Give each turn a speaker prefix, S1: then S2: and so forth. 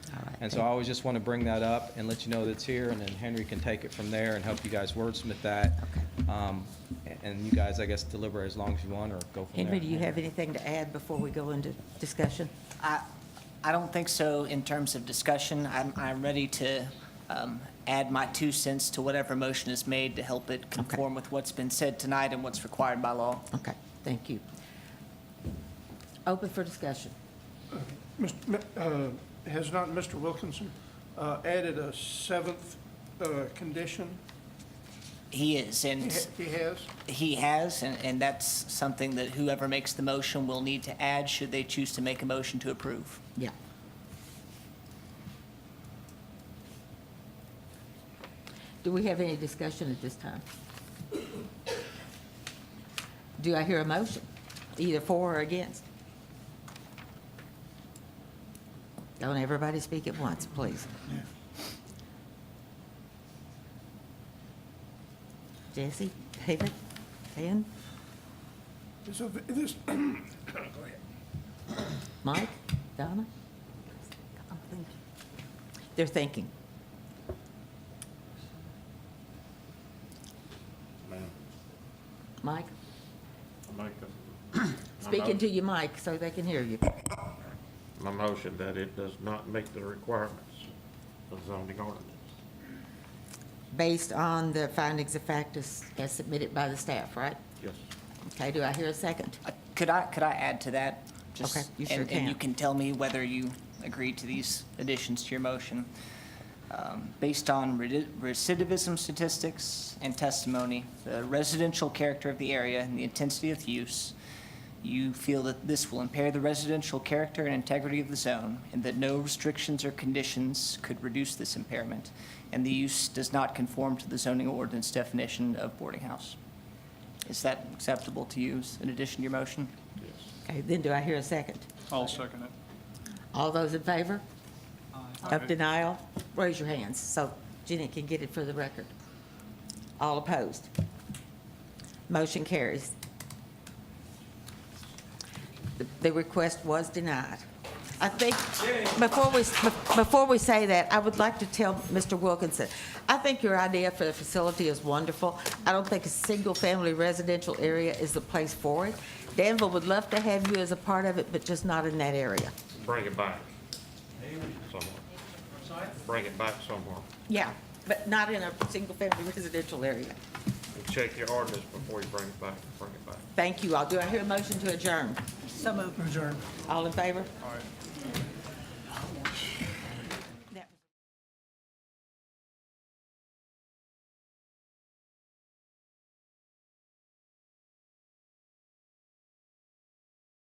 S1: And so I always just want to bring that up and let you know that it's here, and then Henry can take it from there and help you guys wordsmith that. Um, a- And you guys, I guess, deliberate as long as you want or go from there.
S2: Henry, do you have anything to add before we go into discussion?
S3: I, I don't think so in terms of discussion. I'm, I'm ready to um, add my two cents to whatever motion is made to help it conform with what's been said tonight and what's required by law.
S2: Okay, thank you. Open for discussion.
S4: Mr. Mi- uh, Has not Mr. Wilkinson uh, added a seventh uh, condition?
S3: He is,
S4: He
S3: and
S4: ha- he has?
S3: he has, and, and that's something that whoever makes the motion will need to add should they choose to make a motion to approve.
S2: Yeah. Do we have any discussion at this time? Do I hear a motion, either for or against? Don't everybody speak at once, please. Jesse, David, Dan,
S4: Is a v- this- go ahead.
S2: Mike, Donna? They're thinking.
S5: Ma'am,
S2: Mike?
S5: I make a- my
S2: Speaking to
S5: motion-
S2: your mic so they can hear you.
S5: My motion that it does not meet the requirements of zoning ordinance.
S2: Based on the findings of fact as as submitted by the staff, right?
S5: Yes.
S2: Okay, do I hear a second?
S3: Uh, Could I, could I add to that? Just-
S2: Okay, you sure
S3: and- And you
S2: can.
S3: can tell me whether you agree to these additions to your motion. Um, Based on redi- recidivism statistics and testimony, the residential character of the area, and the intensity of use, you feel that this will impair the residential character and integrity of the zone, and that no restrictions or conditions could reduce this impairment, and the use does not conform to the zoning ordinance definition of boarding house. Is that acceptable to you as an addition to your motion?
S2: Okay, then do I hear a second?
S6: I'll second it.
S2: All those in favor of denial, raise your hands so Jenny can get it for the record. All opposed? Motion carries. The- The request was denied. I think, before we, before we say that, I would like to tell Mr. Wilkinson, I think your idea for the facility is wonderful. I don't think a single-family residential area is the place for it. Danville would love to have you as a part of it, but just not in that area.
S5: Bring it back. Somewhere. Bring it back somewhere.
S2: Yeah, but not in a single-family residential area.
S5: And check your ordinance before you bring it back. Bring it back.
S2: Thank you all. Do I hear a motion to adjourn? So moved. Adjourn. All in favor?